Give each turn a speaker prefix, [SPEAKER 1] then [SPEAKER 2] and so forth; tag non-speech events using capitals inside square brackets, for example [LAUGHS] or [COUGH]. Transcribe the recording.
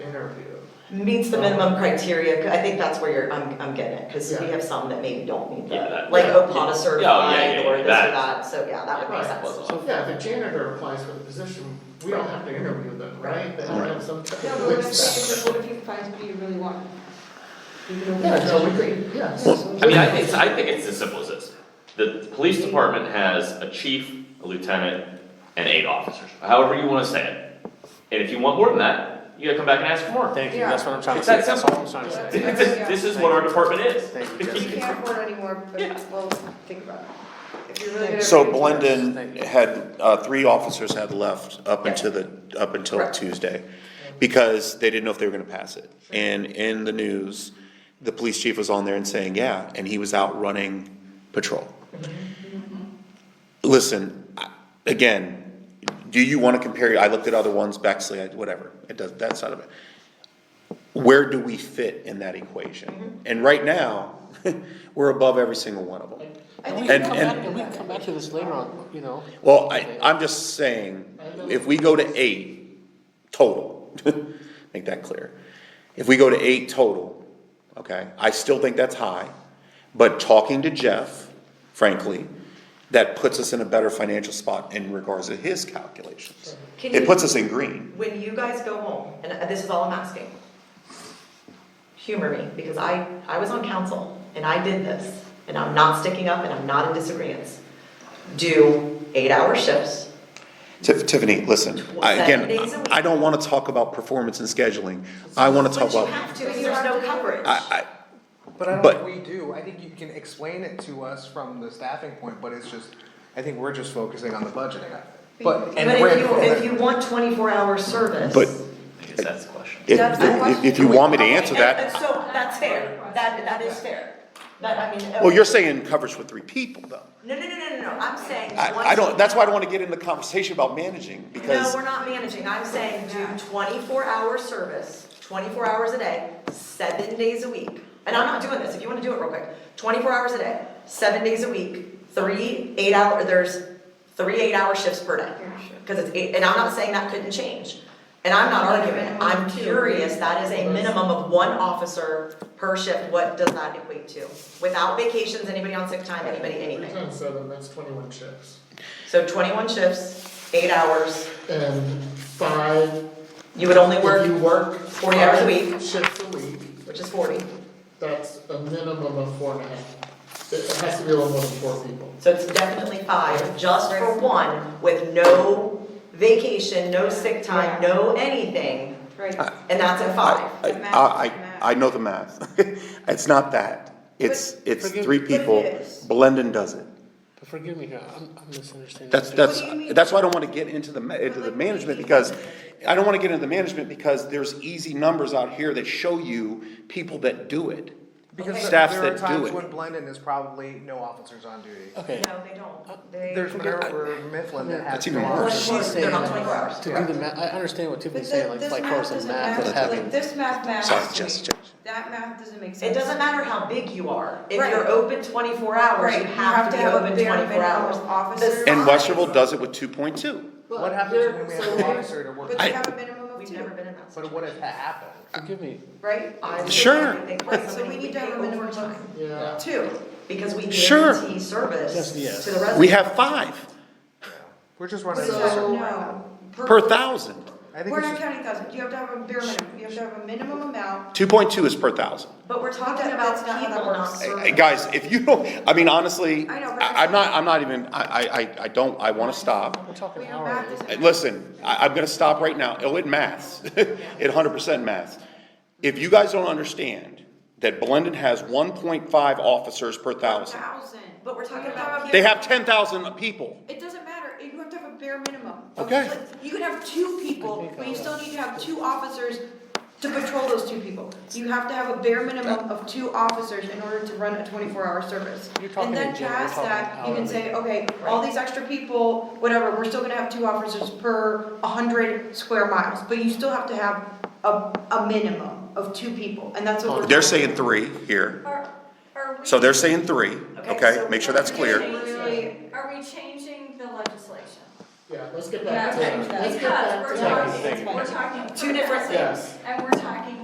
[SPEAKER 1] interview.
[SPEAKER 2] meets the minimum criteria, 'cause I think that's where you're, I'm, I'm getting it, because we
[SPEAKER 1] Yeah.
[SPEAKER 2] have some that maybe don't meet
[SPEAKER 3] Yeah,
[SPEAKER 2] the,
[SPEAKER 3] that-
[SPEAKER 2] like
[SPEAKER 1] yeah.
[SPEAKER 2] Opana
[SPEAKER 3] yeah,
[SPEAKER 2] certified
[SPEAKER 3] yeah,
[SPEAKER 2] or this or
[SPEAKER 3] that-
[SPEAKER 2] that, so yeah, that would make sense.
[SPEAKER 3] Wasn't-
[SPEAKER 1] So yeah, if a janitor applies for the position, we don't have to interview them, right? They have to have some type
[SPEAKER 4] No,
[SPEAKER 1] of
[SPEAKER 4] but what I'm
[SPEAKER 1] list.
[SPEAKER 4] saying is, what if you find somebody you really want? You know,
[SPEAKER 1] Yeah, no, we
[SPEAKER 4] which-
[SPEAKER 1] could, yes.
[SPEAKER 3] I mean, I think, I think it's as simple as this. The police department has a chief, a lieutenant, and eight officers, however you wanna say it. And if you want more than that, you gotta come back and ask for more.
[SPEAKER 5] Thank you, that's what I'm trying to
[SPEAKER 3] It's
[SPEAKER 5] say,
[SPEAKER 3] that
[SPEAKER 5] that's all I'm trying to say.
[SPEAKER 3] This is, this is what our department is.
[SPEAKER 5] Thank you,
[SPEAKER 4] You
[SPEAKER 5] Jessica.
[SPEAKER 4] can't afford anymore, but we'll think about it. If you're really gonna
[SPEAKER 6] So
[SPEAKER 4] bring it to us.
[SPEAKER 6] Blendon had, uh, three officers had left up
[SPEAKER 2] Yeah.
[SPEAKER 6] until the, up until
[SPEAKER 2] Correct.
[SPEAKER 6] Tuesday, because they didn't know if they were gonna pass it. And in the news, the police chief was on there and saying, yeah, and he was out running patrol. Listen, I- again, do you wanna compare, I looked at other ones, Bexley, I- whatever, it does, that side of it. Where do we fit in that equation? And right now, [LAUGHS] we're above every single one of them.
[SPEAKER 5] And we can
[SPEAKER 6] And-
[SPEAKER 5] come
[SPEAKER 6] and-
[SPEAKER 5] back, and we can come back to this later on, you know.
[SPEAKER 6] Well, I, I'm just saying, if we go to eight total, [LAUGHS] make that clear. If we go to eight total, okay, I still think that's high, but talking to Jeff, frankly, that puts us in a better financial spot in regards to his calculations.
[SPEAKER 2] Can
[SPEAKER 6] It
[SPEAKER 2] you-
[SPEAKER 6] puts us in green.
[SPEAKER 2] When you guys go home, and uh, this is all I'm asking, humor me, because I, I was on council, and I did this, and I'm not sticking up, and I'm not in disagreement. Do eight-hour shifts,
[SPEAKER 6] Tiff- Tiffany, listen, I, again,
[SPEAKER 2] Seven days a week.
[SPEAKER 6] I don't wanna talk about performance and scheduling. I wanna
[SPEAKER 2] which
[SPEAKER 6] talk
[SPEAKER 2] you
[SPEAKER 6] about,
[SPEAKER 2] have to, because there's no coverage.
[SPEAKER 6] I, I,
[SPEAKER 7] But I
[SPEAKER 6] But-
[SPEAKER 7] don't think we do, I think you can explain it to us from the staffing point, but it's just, I think we're just focusing on the budgeting of it. But,
[SPEAKER 2] But
[SPEAKER 7] and
[SPEAKER 2] if you,
[SPEAKER 7] we're-
[SPEAKER 2] if you want twenty-four hour service.
[SPEAKER 6] but
[SPEAKER 3] [LAUGHS] I guess that's the question.
[SPEAKER 6] if,
[SPEAKER 2] That's the
[SPEAKER 6] if-
[SPEAKER 2] question.
[SPEAKER 6] if you want me to answer
[SPEAKER 2] Okay, and-
[SPEAKER 6] that,
[SPEAKER 2] and so that's fair, that, that is fair, that, I mean.
[SPEAKER 6] well, you're saying coverage with three people though.
[SPEAKER 2] No, no, no, no, no, no, I'm saying. once
[SPEAKER 6] I, I
[SPEAKER 2] you-
[SPEAKER 6] don't, that's why I don't wanna get into conversation about managing,
[SPEAKER 2] No,
[SPEAKER 6] because,
[SPEAKER 2] we're not managing, I'm saying do twenty-four hour service, twenty-four hours a day, seven days a week. And I'm not doing this, if you wanna do it real quick, twenty-four hours a day, seven days a week, three eight hour, there's three eight hour shifts per day. Cause it's eight, and I'm not saying that couldn't change, and I'm not arguing, I'm curious, that is a minimum of one officer per shift, what does that equate to? Without vacations, anybody on sick time, anybody,
[SPEAKER 1] Three
[SPEAKER 2] anything,
[SPEAKER 1] times seven, that's twenty-one shifts.
[SPEAKER 2] so twenty-one shifts, eight hours,
[SPEAKER 1] And five,
[SPEAKER 2] you would only work.
[SPEAKER 1] if you work
[SPEAKER 2] 40 hours a
[SPEAKER 1] five
[SPEAKER 2] week.
[SPEAKER 1] shifts a week,
[SPEAKER 2] which is forty.
[SPEAKER 1] that's a minimum of four and a half. It has to be a little more than four people.
[SPEAKER 2] So it's definitely five, just for one, with no vacation, no sick time, no anything,
[SPEAKER 4] Right.
[SPEAKER 5] Ah,
[SPEAKER 2] and that's at
[SPEAKER 6] I,
[SPEAKER 2] five.
[SPEAKER 4] The math,
[SPEAKER 6] I,
[SPEAKER 4] the math.
[SPEAKER 6] I, I know the math. [LAUGHS] It's not that, it's, it's
[SPEAKER 5] forgive-
[SPEAKER 6] three
[SPEAKER 5] but
[SPEAKER 4] it
[SPEAKER 6] people,
[SPEAKER 4] is.
[SPEAKER 6] Blendon does it.
[SPEAKER 5] But forgive me here, I'm, I'm misunderstanding.
[SPEAKER 6] That's,
[SPEAKER 5] too.
[SPEAKER 6] that's,
[SPEAKER 4] What do you mean?
[SPEAKER 6] that's why I don't wanna get into the, ma- into the management, because, I don't wanna get into the management, because there's easy numbers out here that show you people that do it.
[SPEAKER 7] Because there
[SPEAKER 6] Staffs
[SPEAKER 7] there are
[SPEAKER 6] that do
[SPEAKER 7] times
[SPEAKER 6] it.
[SPEAKER 7] when Blendon is probably no officers on duty.
[SPEAKER 5] Okay,
[SPEAKER 2] No, they don't, they.
[SPEAKER 7] There's Minerva Mifflin that has
[SPEAKER 6] That's even
[SPEAKER 7] no
[SPEAKER 6] worse.
[SPEAKER 7] officers.
[SPEAKER 5] she's
[SPEAKER 2] They're not
[SPEAKER 5] saying-
[SPEAKER 2] twenty-four hours.
[SPEAKER 5] to do the math, I understand what Tiffany's saying, like, like
[SPEAKER 4] But
[SPEAKER 5] course
[SPEAKER 4] th-
[SPEAKER 5] and
[SPEAKER 4] this
[SPEAKER 5] math,
[SPEAKER 4] math
[SPEAKER 5] but
[SPEAKER 4] doesn't
[SPEAKER 5] having.
[SPEAKER 4] math, like, this math matters
[SPEAKER 6] Sorry,
[SPEAKER 4] to me.
[SPEAKER 6] just- just-
[SPEAKER 4] That math doesn't make sense.
[SPEAKER 2] It doesn't matter how big you are, if
[SPEAKER 4] Right.
[SPEAKER 2] you're open twenty-four hours, you
[SPEAKER 4] Right,
[SPEAKER 2] have to be
[SPEAKER 4] have a
[SPEAKER 2] open
[SPEAKER 4] bare
[SPEAKER 2] twenty-four
[SPEAKER 4] minimum
[SPEAKER 2] hours.
[SPEAKER 4] of officers.
[SPEAKER 6] And
[SPEAKER 2] Besides-
[SPEAKER 6] Westerville does it with two point two.
[SPEAKER 7] What happens when we have an officer to work,
[SPEAKER 4] But they have a minimum of
[SPEAKER 2] We've
[SPEAKER 4] two,
[SPEAKER 2] never been in that
[SPEAKER 7] but
[SPEAKER 2] situation.
[SPEAKER 7] what if that happened?
[SPEAKER 5] Forgive me,
[SPEAKER 4] right?
[SPEAKER 2] I would
[SPEAKER 6] Sure.
[SPEAKER 2] think they-
[SPEAKER 4] Right, so we need to have a
[SPEAKER 2] pay
[SPEAKER 4] minimum of
[SPEAKER 2] overtime,
[SPEAKER 1] Yeah.
[SPEAKER 4] two.
[SPEAKER 2] Because we
[SPEAKER 6] Sure.
[SPEAKER 2] guarantee service
[SPEAKER 5] Yes,
[SPEAKER 2] to the
[SPEAKER 5] yes.
[SPEAKER 2] residents.
[SPEAKER 6] We have five
[SPEAKER 7] We're just running.
[SPEAKER 1] So-
[SPEAKER 7] the circle right now.
[SPEAKER 4] No.
[SPEAKER 6] per thousand.
[SPEAKER 7] I think
[SPEAKER 4] We're
[SPEAKER 7] it's
[SPEAKER 4] not
[SPEAKER 7] just,
[SPEAKER 4] counting thousand, you have to have a bare minimum, you have to have a minimum amount.
[SPEAKER 6] Two point two is per thousand.
[SPEAKER 2] But we're talking
[SPEAKER 4] That-
[SPEAKER 2] about
[SPEAKER 4] that's not how that
[SPEAKER 2] people, not
[SPEAKER 4] works.
[SPEAKER 2] service.
[SPEAKER 6] Hey, Guys, if you don't, I mean, honestly,
[SPEAKER 4] I know, but
[SPEAKER 6] I- I'm not, I'm not even, I, I, I- I don't, I wanna stop.
[SPEAKER 5] we're talking
[SPEAKER 4] We know math
[SPEAKER 5] hourly.
[SPEAKER 4] doesn't
[SPEAKER 6] Uh,
[SPEAKER 4] matter.
[SPEAKER 6] Listen, I, I'm gonna stop right now, oh, it maths, [LAUGHS] it hundred percent maths. If you guys don't understand that Blendon has one point five officers per thousand,
[SPEAKER 4] Thousand.
[SPEAKER 2] But we're talking about
[SPEAKER 6] they have ten thousand people.
[SPEAKER 4] It doesn't matter, you have to have a bare minimum.
[SPEAKER 6] Okay.
[SPEAKER 4] Like, You can have two people, but you still need to have two officers to patrol those two people. You have to have a bare minimum of two officers in order to run a twenty-four hour service.
[SPEAKER 5] You're talking
[SPEAKER 4] And
[SPEAKER 5] in
[SPEAKER 4] then
[SPEAKER 5] general, you're
[SPEAKER 4] past
[SPEAKER 5] talking
[SPEAKER 4] that, you
[SPEAKER 5] hourly.
[SPEAKER 4] can say, okay, all these extra people, whatever, we're still gonna have two officers per hundred square miles, but you still have to have a, a minimum of two people, and that's what we're.
[SPEAKER 6] Oh, They're saying three here,
[SPEAKER 8] Are, are we?
[SPEAKER 6] so they're saying three,
[SPEAKER 2] Okay,
[SPEAKER 6] okay,
[SPEAKER 2] so
[SPEAKER 6] make sure that's clear.
[SPEAKER 4] Really,
[SPEAKER 8] Are we changing the legislation?
[SPEAKER 1] Yeah, let's get back to
[SPEAKER 4] Yeah,
[SPEAKER 1] that. Let's get
[SPEAKER 8] Because
[SPEAKER 1] back to
[SPEAKER 8] we're
[SPEAKER 1] that.
[SPEAKER 8] talking, we're talking.
[SPEAKER 2] Two different
[SPEAKER 8] per
[SPEAKER 2] things.
[SPEAKER 8] person, And we're